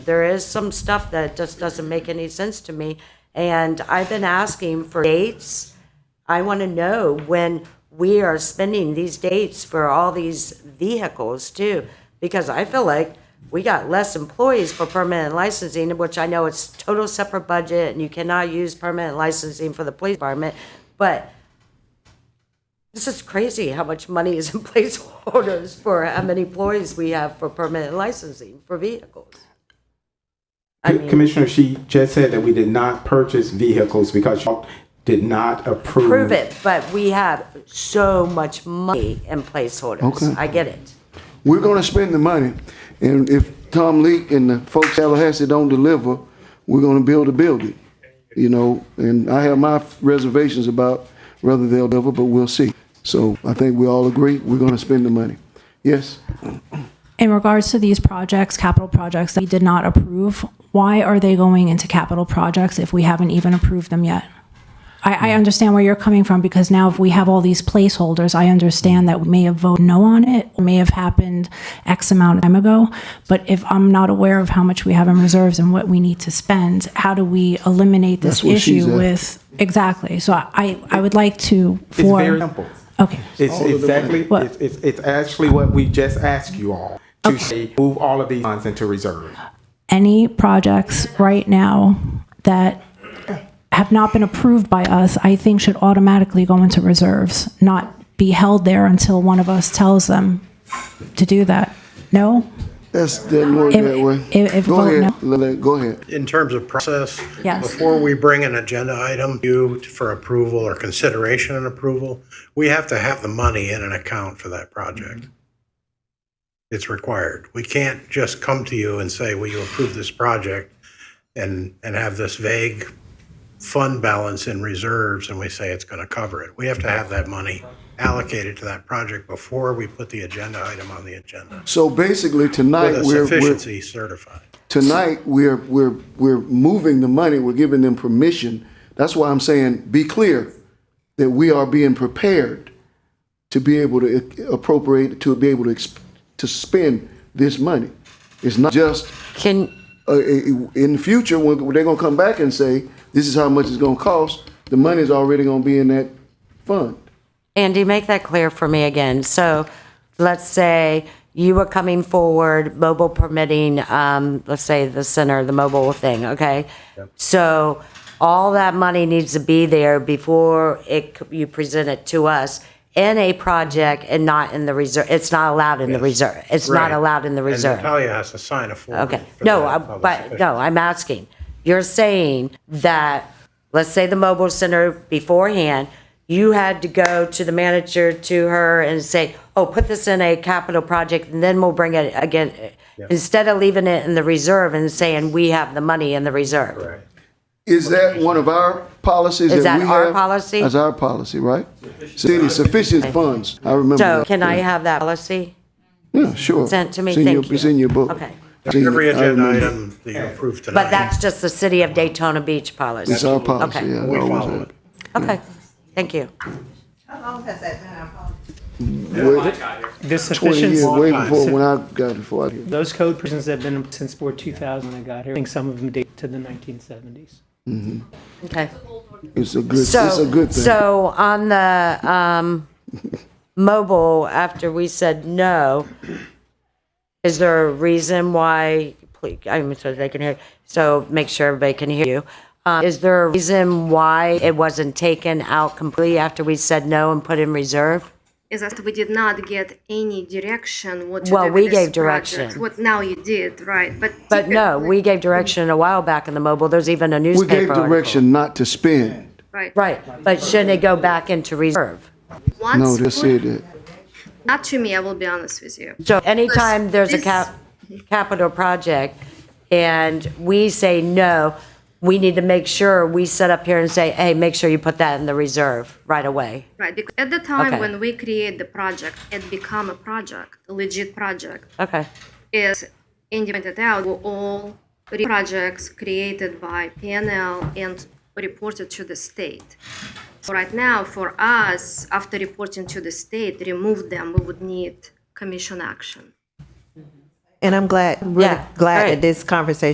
There is some stuff that just doesn't make any sense to me. And I've been asking for dates. I want to know when we are spending these dates for all these vehicles too, because I feel like we got less employees for permanent licensing, which I know it's total separate budget and you cannot use permanent licensing for the police department. But this is crazy how much money is in placeholders for how many employees we have for permanent licensing for vehicles. I mean- Commissioner, she just said that we did not purchase vehicles because y'all did not approve. prove it, but we have so much money in placeholders. Okay. I get it. We're gonna spend the money, and if Tom Leak and the folks at Tallahassee don't deliver, we're gonna build a building. You know, and I have my reservations about whether they'll deliver, but we'll see. So I think we all agree, we're gonna spend the money. Yes? In regards to these projects, capital projects that we did not approve, why are they going into capital projects if we haven't even approved them yet? I, Hmm. I understand where you're coming from because now if we have all these placeholders, I understand that we may have voted no on it, it may have happened X amount of time ago. But if I'm not aware of how much we have in reserves and what we need to spend, how do we eliminate this That's what she's issue at. with? Exactly. So I, I would like to It's for. very simple. Okay. It's exactly, What? it's, it's, it's actually what we just asked you all to say, move all of these funds into reserve. any projects right now that have not been approved by us, I think should automatically go into reserves, not be held there until one of us tells them to do that. No? That's, doesn't work If- that way. if- if Go vote ahead, Lele, go ahead. in terms of process? Yes. Before we bring an agenda item to you for approval or consideration and approval, we have to have the money in an account for that project. It's required. We can't just come to you and say, will you approve this project? And, and have this vague fund balance in reserves and we say it's going to cover it. We have to have that money allocated to that project before we put the agenda item on the agenda. So basically, tonight, With a we're, we're, sufficiency certified. tonight, we're, we're, we're moving the money, we're giving them permission. That's why I'm saying, be clear that we are being prepared to be able to appropriate, to be able to, ex- to spend this money. It's not just Can, uh, in the future, when they're gonna come back and say, this is how much it's gonna cost, the money's already gonna be in that fund. Andy, make that clear for me again. So let's say you were coming forward, mobile permitting, um, let's say the center, the mobile thing, okay? So all that money needs to be there before it, c- you present it to us in a project and not in the reserve. It's not allowed in the reserve. It's not Right. allowed in the reserve. And Natalia has to sign a form. Okay, for no, that I- public but, no, I'm asking, you're saying that, let's say the mobile center beforehand, you had to go to the manager, to her, and say, oh, put this in a capital project, and then we'll bring it again, instead of leaving it in the reserve and saying, we have the money in the reserve. Right. Is that one of our policies that we Is have? that our policy? That's our policy, right? City sufficient funds, I remember So that. can I have that policy? Yeah, sure. sent to me? Mm-hmm. It's in your- Thank you. It's in your book. um, Okay. It's in your- Every I agenda remember. item that you approve tonight. But that's just the city of Daytona Beach policy. It's our policy, Okay. yeah. it We always follow is. it. Okay, thank you. How long has that been our policy? The Twenty years, sufficiency, way before, when I got it, before I here. those code prisons have been since before 2000 when I got here. I think some of them date to the 1970s. Okay. It's a good, it's So, a good thing. So on the um, mobile, after we said no, is there a reason why? Please, I'm so they can hear. So make sure everybody can hear you. Um, is there a reason why it wasn't taken out completely after we said no and put in reserve? is that we did not get any direction what to Well, do we with this gave project. direction. What now you did, right? But But no, typically- we gave direction a while back in the mobile. There's even a We newspaper. gave article. direction not to spend. right. Right, but shouldn't it go back into reserve? Once No, they said that. not to me. I will be honest with you. So anytime there's a cap, capital project and we say no, we need to make sure we set up here and say, hey, make sure you put that in the reserve right away. Right. Because at the time Okay. when we create the project, it become a project, a legit project. Okay. Is independent out were all re- projects created by PNL and reported to the state. So right now, for us, after reporting to the state, remove them, we would need commission action. And I'm glad, really Yeah, glad right. that this conversation